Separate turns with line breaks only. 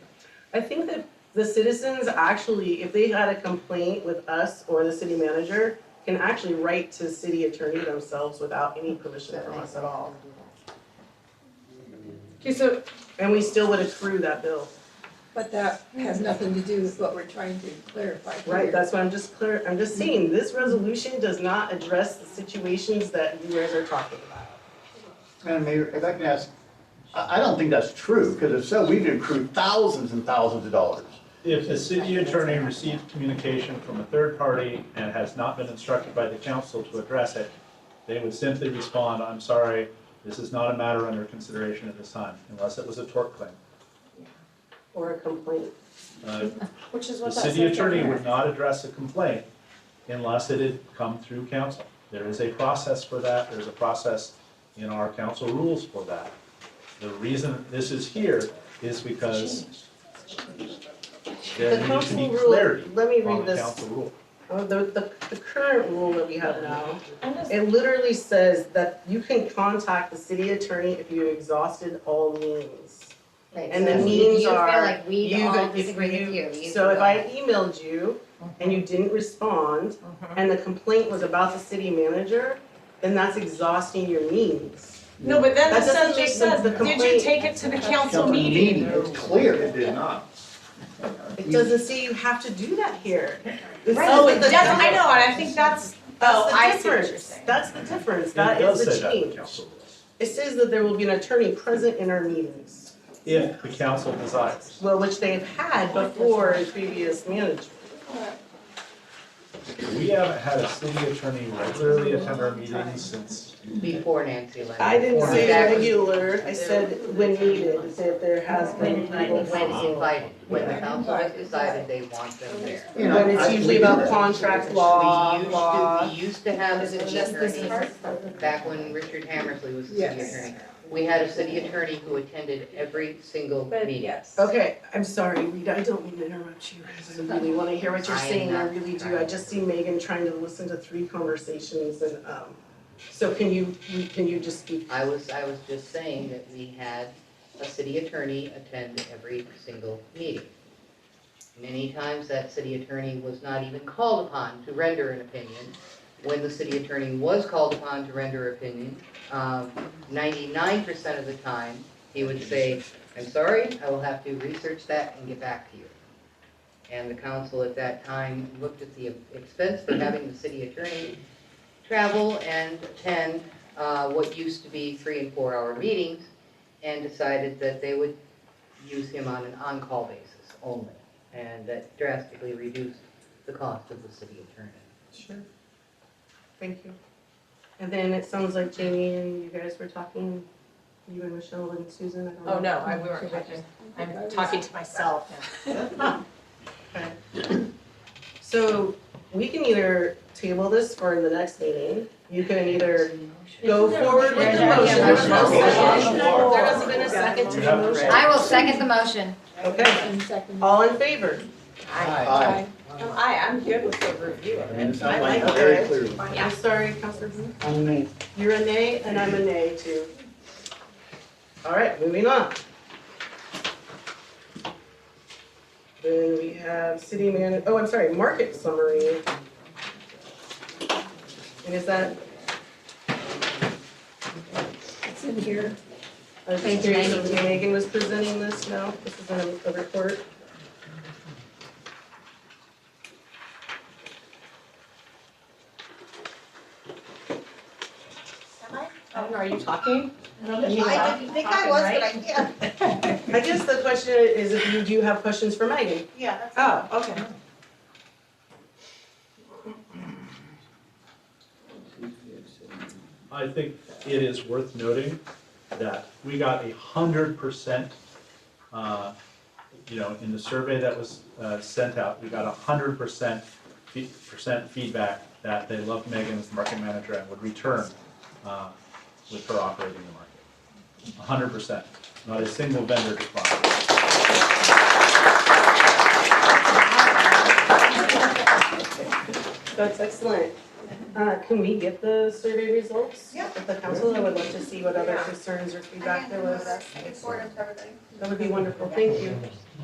I think that the citizens actually, if they had a complaint with us or the city manager, can actually write to the city attorney themselves without any permission from us at all.
Okay, so,
And we still would accrue that bill,
But that has nothing to do with what we're trying to clarify here.
right? That's why I'm just clear, I'm just saying, this resolution does not address the situations that you guys are talking about.
Madam Mayor, if I can ask, I, I don't think that's true, because if so, we've accrued thousands and thousands of dollars.
If the city attorney receives communication from a third party and has not been instructed by the council to address it, they would simply respond, I'm sorry, this is not a matter under consideration at this time, unless it was a tort claim.
Or a complaint.
Uh,
Which is
The
what that
city
says right
attorney
there.
would not address a complaint unless it had come through council. There is a process for that, there's a process in our council rules for that. The reason this is here is because there
The
needs to be
council rule,
clarity
let me
on
read
the
this,
council rule.
uh, the, the, the current rule that we have now
I'm just-
It literally says that you can contact the city attorney if you exhausted all means. And the
so if you-
means
You
are,
feel like we
You've-
all
if
disagree with you, you
So
can
if
go.
I emailed you and you didn't respond, and the complaint was about the city manager, then that's exhausting your means.
no, but then
That
the
doesn't
subject
make
says,
the
did you
complaint-
take it to the council
Council
meeting?
It's clear it did not.
It doesn't say you have to do that here. It
Right.
says
Oh,
that the-
that's, I know, and I think that's,
That's
oh,
the
I see what you're
difference.
saying.
That's the difference,
It
that
does
is the
say that in
change.
council rules,
It says that there will be an attorney present in our meetings,
If the council desires.
well, which they've had before in previous management.
We haven't had a city attorney regularly attend our meetings since
Before Nancy Lynn.
I didn't say
Exactly.
regular, I said when needed, It said there has been
When,
people
when
from.
invited, when the council has decided they want them there.
You know,
But it's
I-
usually about contract law,
We used to-
law.
We used to have a
Is it
city
just this
attorney, back when Richard Hammersley was the city
Yes.
attorney. We had a city attorney who attended every single
But
meeting.
yes.
Okay, I'm sorry, Rita, I don't mean to interrupt you, 'cause I really wanna hear what you're
I am
saying, I
not
really do, I
trying.
just see Megan trying to listen to three conversations and, um, so can you, you- can you just speak?
I was, I was just saying that we had a city attorney attend every single meeting. Many times that city attorney was not even called upon to render an opinion. When the city attorney was called upon to render opinion, um, ninety-nine percent of the time, he would say, I'm sorry, I will have to research that and get back to you. And the council at that time looked at the expense for having the city attorney travel and attend uh, what used to be three and four hour meetings and decided that they would use him on an on-call basis only. And that drastically reduced the cost of the city attorney.
Sure. Thank you. And then it sounds like Jamie and you guys were talking, you and Michelle and Susan, I don't know.
Oh, no, I, we weren't talking, I'm talking to myself.
So we can either table this for the next meeting, you can either go forward with the motion.
There's no motion.
There hasn't been a second to the motion.
I will second the motion.
Okay,
And second.
all in favor?
Aye.
Um, I, I'm good with the review of it.
And it's
I
not
like
like
that.
very clear.
I'm sorry, Counselor Blue. You're a nay and I'm a nay too. All right, moving on. Then we have city man, oh, I'm sorry, market summary. And is that,
It's in here.
I was just
Page
curious, if Megan was presenting this now, this is a- a report.
I don't know, are you talking?
I didn't think I was, but I, yeah,
I guess the question is if you do have questions for Megan.
yeah, that's.
Oh, okay.
I think it is worth noting that we got a hundred percent, uh, you know, in the survey that was, uh, sent out, we got a hundred percent, fe- percent feedback that they loved Megan as the market manager and would return, uh, with her operating the market. A hundred percent, not a single vendor declined.
That's excellent. Uh, can we get the survey results?
Yeah.
At the council, I would love to see what other concerns or
I
feedback there
didn't know
was.
that. I can forward it to everybody.
That would be wonderful, thank you.